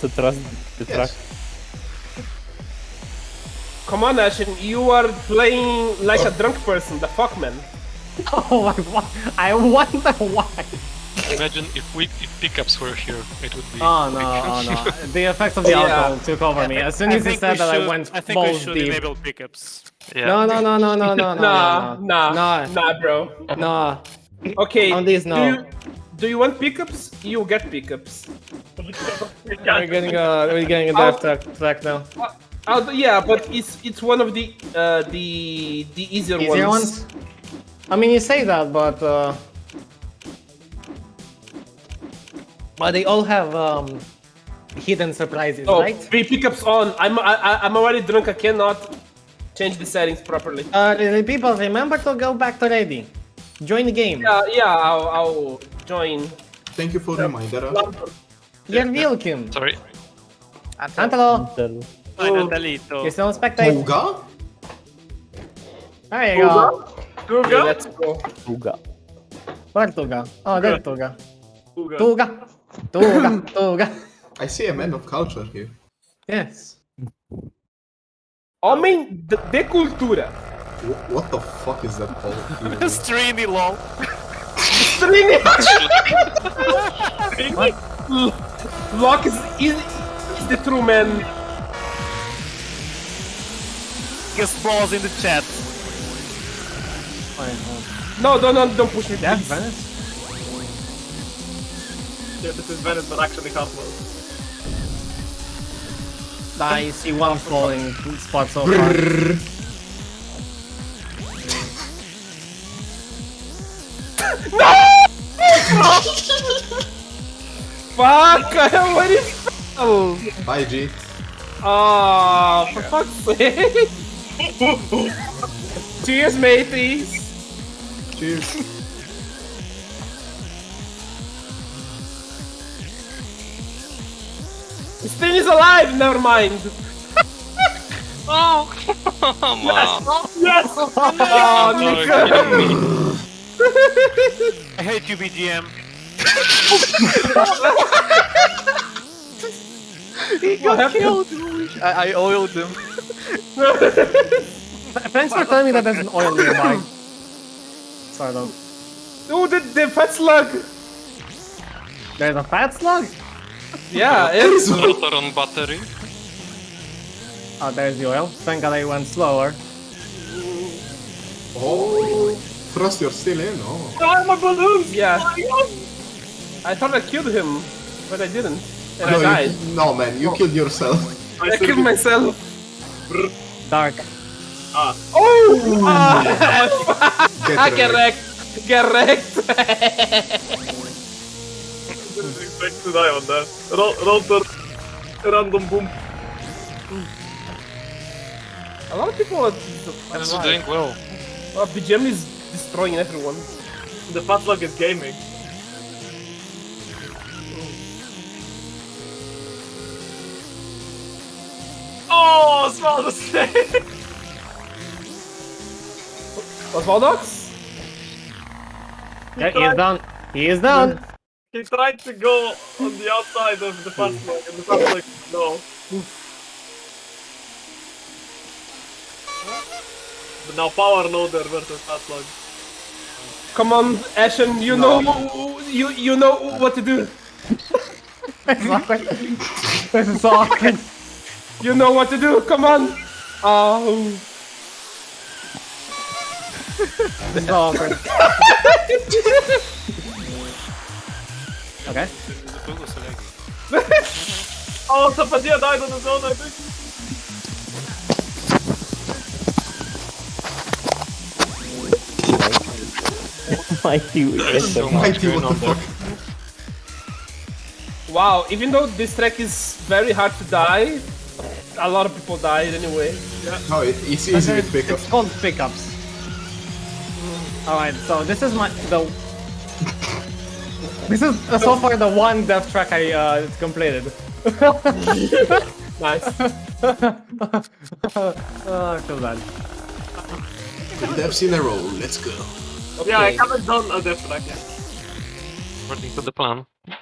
to trust the truck. Come on, Ashen, you are playing like a drunk person, the fuck man. Oh, I, wa- I wonder why. Imagine if we if pickups were here, it would be. Oh no, oh no. The effects of the Yeah. alcohol took over me. As soon as he said that, I went I think we balls should deep. enable pickups. Yeah. No, no, no, no, no, no, no, Nah, nah, nah, no, bro. no. Okay. On these, no. Do you, do you want pickups? You get pickups. We're getting a, we're getting a death track, track now. Uh, uh, yeah, but it's it's one of the uh, the the easier, Easier ones. ones? I mean, you say that, but uh, but they all have um, hidden surprises, Oh, right? three pickups on. I'm I, I- I'm already drunk. I cannot change the settings properly. Uh, the people, remember to go back to ready. Join the game. Yeah, Uh, yeah. I'll, I'll join. Thank you for the reminder. uh. You're welcome. Sorry. Antelo, Then- Ay, Oh. Natalito. you still spectate. Olga? There you go. Okay, let's go. Uga. Where Tuga? Oh, there Tuga. Uga. Tuga. Tuga. Tuga. I see a man of culture here. Yes. Homem de, de cultura. Wh- What the fuck is that called? Streamy lol. String. L- Locke is, is is the true man. Biggest balls in the chat. Fine. oh. No, don't don't, don't push me. Yeah, please. Venice. Yeah, this is Venice, but actually half low. I see one falling spot so far. Fuck! What is? Oh. Bye, G. Oh, for fuck's sake! Cheers, mateys! Cheers. This thing is alive! Never mind! Oh, come on. Oh, You're Nico! kidding me. I hate you, BGM. What happened? I, I oiled him. Thanks for telling me that there's an oil nearby. Sorry, though. Oh, the, the fat slug! There's a fat slug? Yeah, it's. Rotor on battery. Oh, there's the oil. Thank god I went slower. Oh, trust you're still in. Oh, Yeah. I thought I killed him, but I didn't. And I no, died. you, no, man, you killed yourself. I killed myself. Dark. Oh! Ah, Get I ready. get wrecked! Get wrecked! Didn't expect to die on that. Rotor. Random boom. A lot of people are. That's doing well. Oh, BGM is destroying everyone. The fat log is gaming. Oh, small mistake! Osvaldox? Yeah, he is down. He is down. He tried to go on the outside of the fat log, and the fat log, no. But now power loader versus fat log. Come on, Ashen, you know you you know what to do. It's awkward. this is so awkward. You know what to do. Come on. Oh, This is so awkward. Okay. Oh, Sapatia died on his own, I think. Mighty There's Wizard. so much Mighty, going what on the there. fuck? wow. Even though this track is very hard to die, a lot of people died anyway. No, it, it's easy with pickup. It's called pickups. Alright, so this is my the This is uh, so far the one death track I uh, completed. Nice. Oh, I feel bad. Devs in a row, let's go. Okay. haven't done a death track yet. According to the plan.